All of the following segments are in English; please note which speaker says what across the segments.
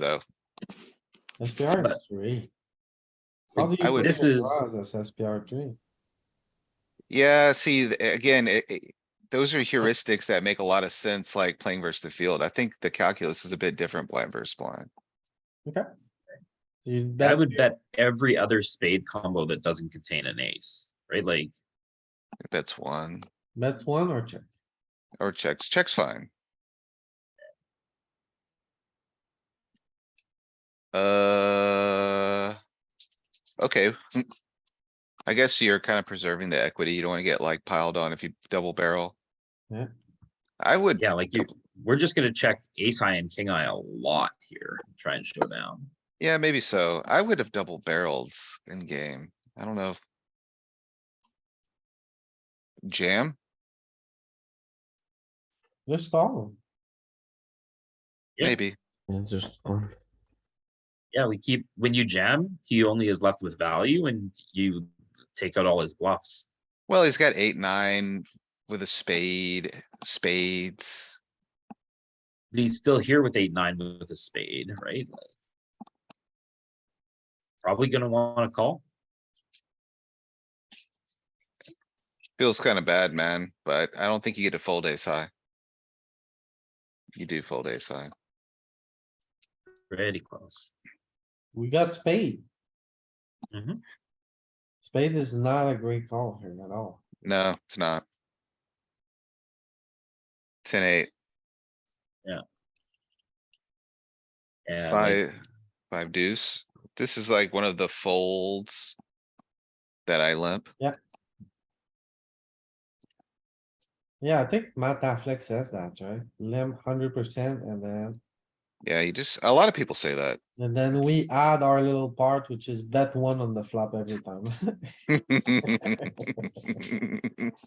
Speaker 1: though.
Speaker 2: SPR is three. How do
Speaker 1: I
Speaker 2: you
Speaker 1: would-
Speaker 2: put
Speaker 3: This
Speaker 2: the
Speaker 3: is-
Speaker 2: draws as SPR three?
Speaker 1: Yeah, see, th- again, it, it- those are heuristics that make a lot of sense, like playing versus the field. I think the calculus is a bit different blind versus blind.
Speaker 2: You
Speaker 3: I
Speaker 2: bet
Speaker 3: would
Speaker 2: here.
Speaker 3: bet every other spade combo that doesn't contain an ace, right? Like,
Speaker 1: If that's one,
Speaker 2: That's one or check.
Speaker 1: or checks, checks fine. Uh. Okay. mm. I guess you're kind of preserving the equity. You don't wanna get like piled on if you double barrel.
Speaker 2: Yeah.
Speaker 1: I would,
Speaker 3: yeah, like you, we're just gonna check ace high and king high a lot here, and try and show down.
Speaker 1: yeah, maybe so. I would have double barrels in game. I don't know. if- Jam?
Speaker 2: Just call.
Speaker 3: Yeah.
Speaker 1: Maybe.
Speaker 4: Yeah, just on.
Speaker 3: Yeah, we keep, when you jam, he only is left with value and you take out all his bluffs.
Speaker 1: Well, he's got eight, nine with a spade, spades.
Speaker 3: But he's still here with eight, nine with a spade, right? Like, Probably gonna wanna call.
Speaker 1: Feels kinda bad, man, but I don't think you get a fold ace high. You do fold ace high.
Speaker 3: Pretty close.
Speaker 2: We got spade.
Speaker 1: Mm-hmm.
Speaker 3: Mhm.
Speaker 2: Spade is not a great call here at all.
Speaker 1: No, it's not. Ten, eight,
Speaker 3: Yeah, like,
Speaker 1: five, five deuce. This is like one of the folds that I limp.
Speaker 2: Yeah, I think Matt Affleck says that, right? Limp hundred percent and then,
Speaker 1: Yeah, you just, a lot of people say that.
Speaker 2: and then we add our little part, which is bet one on the flop every time.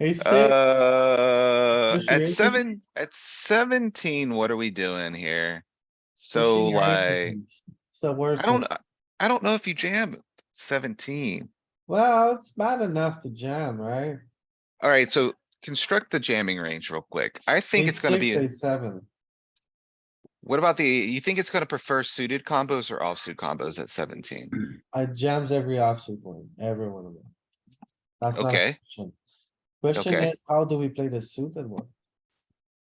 Speaker 2: Ace six,
Speaker 1: Uh,
Speaker 2: Pushing
Speaker 1: at
Speaker 2: eighteen?
Speaker 1: seven, at seventeen, what are we doing here? So
Speaker 2: pushing your
Speaker 1: like,
Speaker 2: equities. It's the worst.
Speaker 1: I don't, uh,
Speaker 2: one.
Speaker 1: I don't know if you jam seventeen.
Speaker 2: Well, it's bad enough to jam, right?
Speaker 1: Alright, so construct the jamming range real quick. I think it's
Speaker 2: Ace
Speaker 1: gonna
Speaker 2: six,
Speaker 1: be,
Speaker 2: ace Seven.
Speaker 1: what about the, you think it's gonna prefer suited combos or offsuit combos at seventeen?
Speaker 2: I jams every offsuit one, every one of them. That's not a
Speaker 1: Okay.
Speaker 2: question. Question
Speaker 1: Okay.
Speaker 2: is, how do we play the suited one?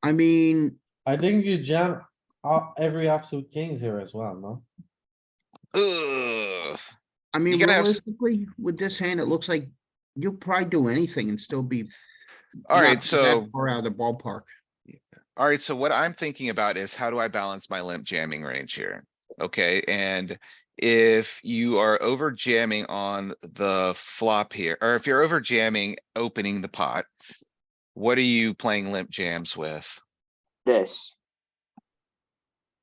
Speaker 5: I mean,
Speaker 2: I think you jam off every offsuit kings here as well, no?
Speaker 1: Ugh,
Speaker 5: I mean,
Speaker 1: gotta have s-
Speaker 5: realistically, with this hand, it looks like you'll probably do anything and still be. not
Speaker 1: alright,
Speaker 5: that
Speaker 1: so,
Speaker 5: Far out of the ballpark.
Speaker 1: alright, so what I'm thinking about is how do I balance my limp jamming range here? Okay, and if you are over jamming on the flop here, or if you're over jamming, opening the pot. What are you playing limp jams with?
Speaker 6: This.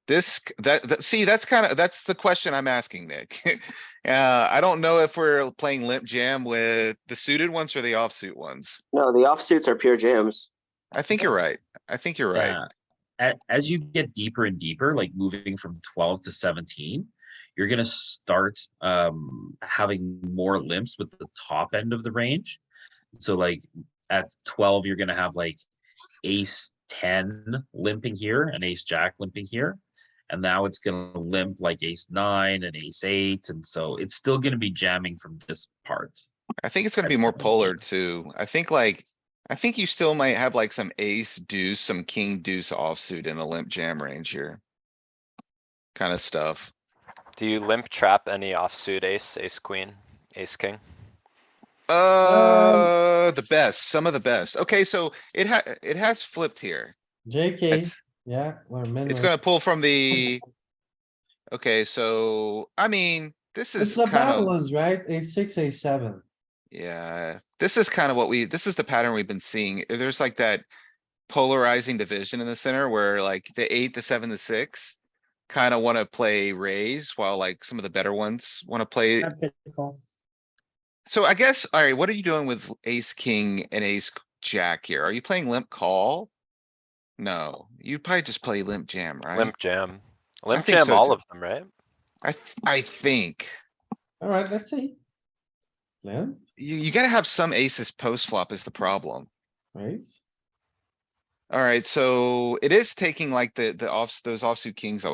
Speaker 1: This, c- that, that, see, that's kind of, that's the question I'm asking, Nick. Uh, I don't know if we're playing limp jam with the suited ones or the offsuit ones.
Speaker 6: No, the offsuits are pure jams.
Speaker 1: I think you're right. I think you're right.
Speaker 3: yeah. Uh, A- as you get deeper and deeper, like moving from 12 to 17, you're going to start um, having more limps with the top end of the range. So, like at 12, you're going to have like ace 10 limping here and ace jack limping here. And now it's going to limp like ace nine and ace eight. And so it's still going to be jamming from this part.
Speaker 1: I think it's gonna be
Speaker 3: That's
Speaker 1: more
Speaker 3: something.
Speaker 1: polar too. I think like, I think you still might have like some ace deuce, some king deuce offsuit in a limp jam range here. Kind of stuff.
Speaker 7: Do you limp trap any offsuit ace, ace queen, ace king?
Speaker 2: Um,
Speaker 1: Uh, the best, some of the best. Okay, so it ha- it has flipped here.
Speaker 2: JK,
Speaker 1: It's-
Speaker 2: yeah, we're min.
Speaker 1: It's
Speaker 2: range.
Speaker 1: gonna pull from the. Okay, so, I mean, this
Speaker 2: It's
Speaker 1: is
Speaker 2: the bad
Speaker 1: kinda,
Speaker 2: ones, right? Ace six, ace seven.
Speaker 1: yeah, this is kinda what we, this is the pattern we've been seeing. There's like that. Polarizing division in the center where like the eight, the seven, the six. Kinda wanna play raise while like some of the better ones wanna play. So I guess, alright, what are you doing with ace, king and ace jack here? Are you playing limp call? No, you probably just play limp jam, right?
Speaker 7: Limp jam. Limp
Speaker 1: think
Speaker 7: jam
Speaker 1: so, too.
Speaker 7: all of them, right?
Speaker 1: I, th- I think.
Speaker 2: Alright, let's see. Limp,
Speaker 1: You, you gotta have some aces post flop is the problem.
Speaker 2: right?
Speaker 1: Alright, so it is taking like the, the offs, those offsuit kings I was